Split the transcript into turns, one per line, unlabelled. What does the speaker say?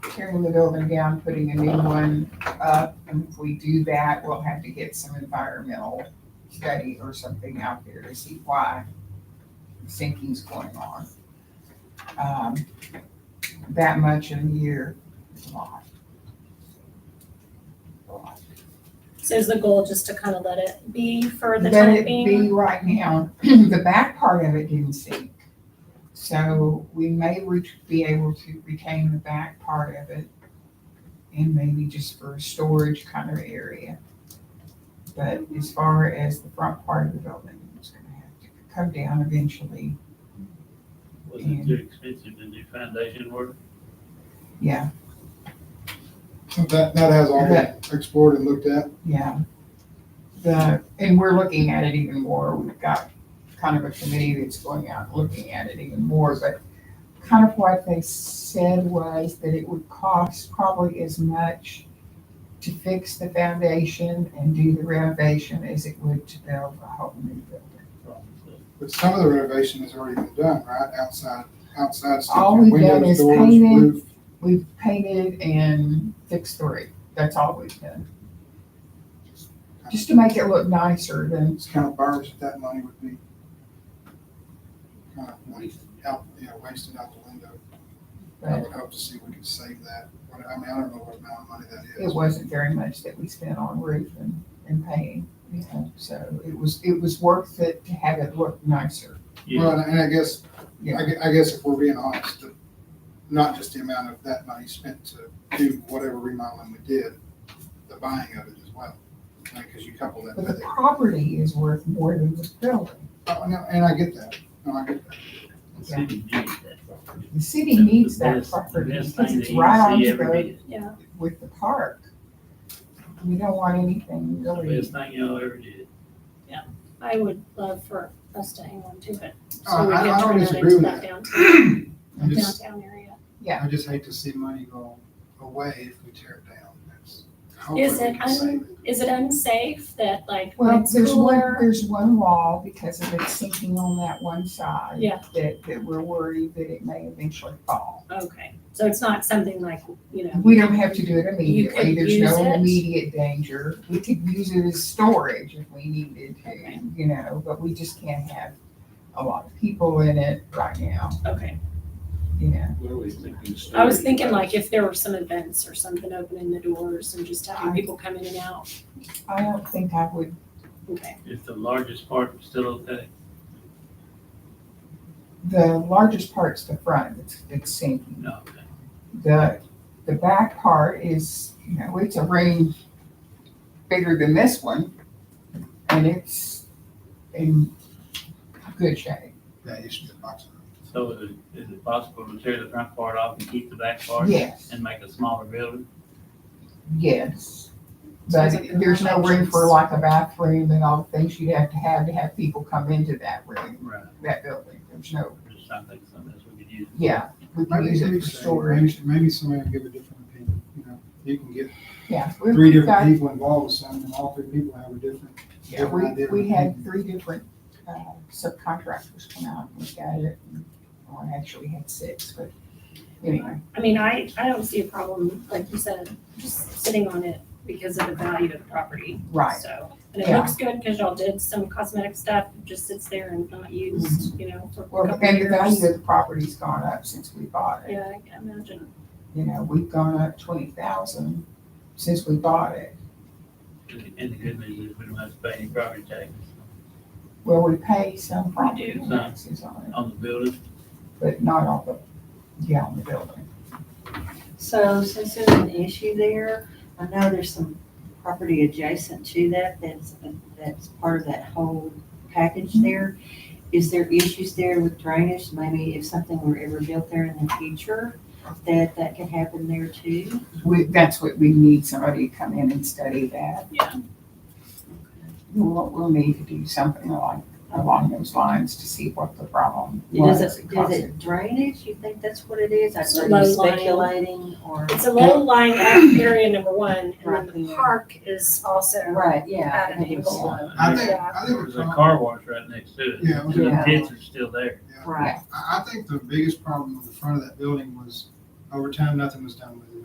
tearing the building down, putting a new one up. And if we do that, we'll have to get some environmental study or something out there to see why sinking's going on. Um, That much in a year is a lot. A lot.
So is the goal just to kind of let it be for the
Let
time
it
being?
be right now, the back part of it didn't sink. So we may re- be able to retain the back part of it and maybe just for a storage kind of area. But as far as the front part of the building, it's gonna have to come down eventually.
Was it too expensive to do foundation work?
Yeah,
That, that has all been explored and looked at.
yeah. The, and we're looking at it even more. We've got kind of a committee that's going out and looking at it even more, but kind of what they said was that it would cost probably as much to fix the foundation and do the renovation as it would to build a whole new building.
But some of the renovation has already been done, right? Outside, outside stuff,
All we've done
windows,
is
doors,
painted.
roof.
We've painted and fixed the roof. That's all we've done. Just to make it look nicer than,
It's kind of burns that that money would be kind of wasted out, yeah, wasted out the window. I
but
would hope to see we could save that. But, I mean, I don't know what amount of money that
it
is.
wasn't very much that we spent on roof and, and painting, you know, so it was, it was worth it to have it look nicer.
Yeah,
Well, and I guess, I
Yeah.
gue- I guess if we're being honest, the- not just the amount of that money spent to do whatever remodeling we did, the buying of it as well. Because you couple that
But
with
the
it.
property is worth more than the building.
Oh, no, and I get that. No, I get that.
the city needs that property.
The city needs that
That's the best-
property
the best
because
thing
it's
that you
right
see
on the
every
road
Yeah,
with the park. We don't want anything
day.
really,
Best thing y'all ever did.
I would love for us to hang on to it.
Uh,
So we
I- I
can
don't
turn it into
disagree with
that
that.
downtown,
I just,
downtown area.
yeah.
I just hate to see money go away if we tear it down. That's- hopefully
Is
we
it,
can save
un- is it unsafe that like when
Well,
it's
there's one,
cooler?
there's one wall because of it sinking on that one side.
Yeah.
That, that we're worried that it may eventually fall.
Okay, so it's not something like, Um, you know,
We don't have to do it immediately.
could
There's
use
no
it.
immediate danger. We could use it as storage if we needed
Okay.
to, you know, but we just can't have a lot of people in it right now,
okay.
you know.
What are we thinking?
I was thinking like if there were some events or something opening the doors and just having
I-
people come in and out.
I don't think I would,
Okay,
If the largest part was still okay.
the largest part's the front, it's, it's sinking.
No, okay.
The, the back part is, you know, it's a room bigger than this one, and it's in good shape.
That issue of boxing.
So is it, is it possible to tear the front part off and keep the back part?
Yes,
And make a smaller building?
yes. But there's no room for like a bathroom and all the things you'd have to have to have people come into that room,
Right.
that building. There's no,
Just something, something else we could use.
yeah, we can
Maybe
use it
maybe
for storage.
somebody- maybe somebody will give a different opinion, you know, you can get
Yeah. we've
three
got-
different people involved with something, and all three people have a different.
Yeah, we, we had three different uh, subcontractors come out and look at it. and- Well, I actually had six, but anyway,
I mean, I, I don't see a problem, like you said, just sitting on it because of the value of the property.
right.
So, and it
Yeah.
looks good because y'all did some cosmetic stuff, it just sits there and not used, you know, for a
Well,
couple
and the value
years.
of the property's gone up since we bought it.
Yeah, I can imagine.
You know, we've gone up twenty thousand since we bought it.
And and the good news is we don't have to pay any property taxes
Well, we pay some property
do.
taxes on it,
on the building.
but not on the, yeah, on the building.
So since there's an issue there, I know there's some property adjacent to that that's, that's part of that whole package there. Is there issues there with drainage? Maybe if something were ever built there in the future, that that could happen there too?
We, that's what we need, somebody to come in and study that.
Yeah.
We'll, we'll need to do something along, along those lines to see what the problem was.
Does it,
caused
does it drainage? You think that's what it is? I
It's a
heard
low
you
line.
speculating or?
It's a low lying area number one, and
Right
then the
there.
park is also
Right, yeah.
at an angle.
I
There's
think, I think.
there's
the
a
problem-
car wash right next to it.
Yeah, it
And
was
the
Yeah.
pits are still there.
Right.
I, I think the biggest problem with the front of that building was over time, nothing was done with it.